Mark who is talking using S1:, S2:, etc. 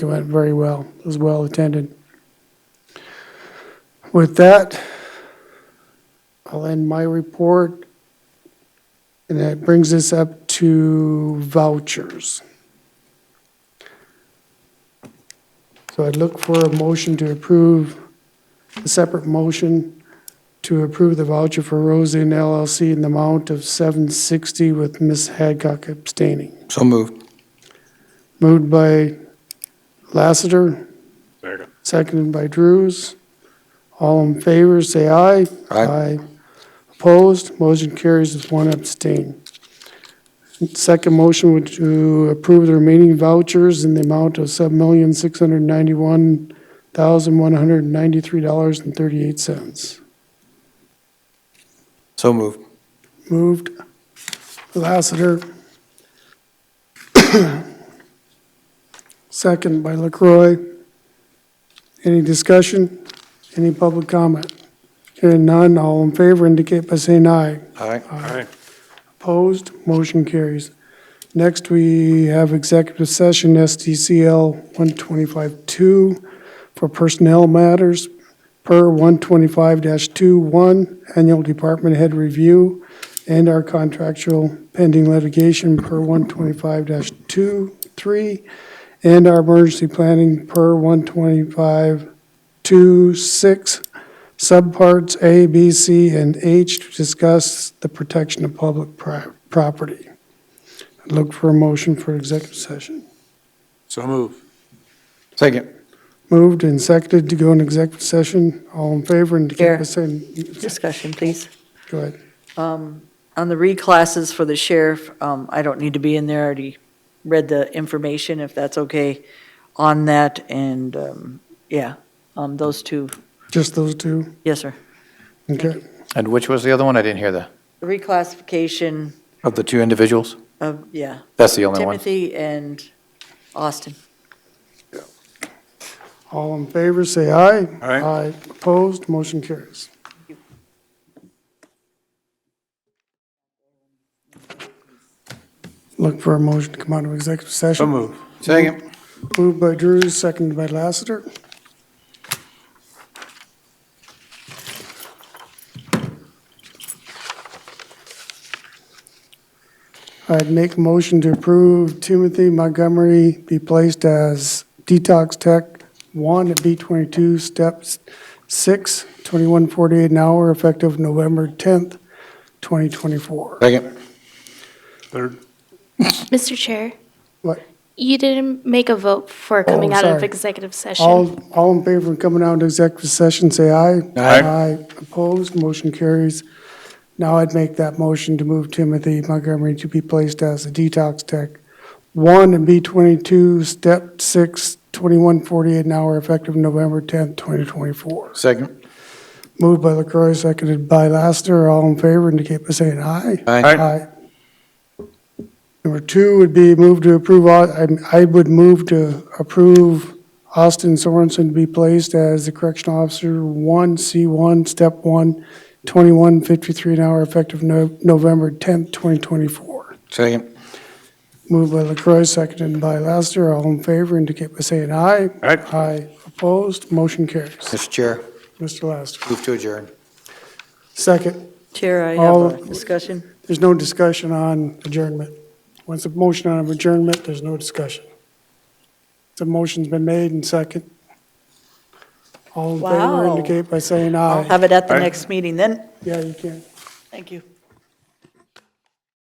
S1: It went very well. It was well attended. With that, I'll end my report. And that brings us up to vouchers. So I'd look for a motion to approve, a separate motion to approve the voucher for Rose Inn LLC in the amount of 760 with Ms. Hadcock abstaining.
S2: So moved.
S1: Moved by Lassiter,
S3: Second.
S1: seconded by Drews. All in favor, say aye.
S2: Aye.
S1: Opposed, motion carries with one abstain. Second motion would to approve the remaining vouchers in the amount of seven million, six hundred ninety-one thousand, one hundred ninety-three dollars and thirty-eight cents.
S2: So moved.
S1: Moved, Lassiter. Second by Lacroix. Any discussion? Any public comment? Hearing none, all in favor indicate by saying aye.
S2: Aye.
S3: Aye.
S1: Opposed, motion carries. Next, we have executive session, SDCL 125-2, for personnel matters per 125-21, annual department head review, and our contractual pending litigation per 125-23, and our emergency planning per 125-26, subparts A, B, C, and H to discuss the protection of public pri- property. I'd Look for a motion for executive session.
S3: So move.
S2: Second.
S1: Moved and seconded to go in executive session. All in favor indicate by
S4: Here.
S1: saying,
S4: Discussion, please. Um,
S1: go ahead.
S4: On the reclasses for the sheriff, um, I don't need to be in there, I already read the information, if that's okay, on that, and, um, yeah, um, those two,
S1: Just those two?
S4: yes, sir.
S1: Okay.
S5: And which was the other one? I didn't hear the,
S4: The reclassification
S2: Of the two individuals?
S4: of, yeah,
S5: that's the only one.
S4: Timothy and Austin.
S1: All in favor, say aye.
S3: Aye.
S1: Aye. Opposed, motion carries. Look for a motion to come out of executive
S3: So
S1: session.
S3: move.
S2: Second.
S1: Moved by Drews, seconded by Lassiter. I'd make a motion to approve Timothy Montgomery be placed as detox tech one at B twenty-two, steps six, twenty-one forty-eight an hour, effective November tenth, twenty twenty-four.
S2: Second.
S3: Third.
S6: Mr. Chair,
S1: What, Oh,
S6: you didn't make a vote for coming out of
S1: sorry.
S6: executive session.
S1: All, all in favor of coming out into executive session, say aye.
S2: Aye.
S1: Opposed, motion carries. Now I'd make that motion to move Timothy Montgomery to be placed as a detox tech. One and B twenty-two, step six, twenty-one forty-eight an hour, effective November tenth, twenty twenty-four.
S2: Second.
S1: Moved by LaCroy, seconded by Laster. All in favor indicate by saying aye.
S2: Aye.
S1: Aye. Number two would be move to approve, au- I- I would move to approve Austin Sorensen to be placed as the correctional officer, one, C one, step one, twenty-one fifty-three an hour effective No- November tenth, twenty twenty-four.
S2: Second.
S1: Moved by LaCroy, seconded by Laster. All in favor indicate by saying aye.
S3: Aye.
S1: Aye. Opposed, motion carries.
S2: Mr. Chair,
S1: Mr. Laster.
S2: move to adjourn.
S1: Second.
S4: Chair, I
S1: All-
S4: have a discussion.
S1: There's no discussion on adjournment. Once a motion on adjournment, there's no discussion. The motion's been made and second. All in favor
S4: Wow.
S1: indicate by saying
S4: I'll
S1: aye.
S4: have it at the
S3: Aye.
S4: next meeting then.
S1: Yeah, you can.
S4: Thank you.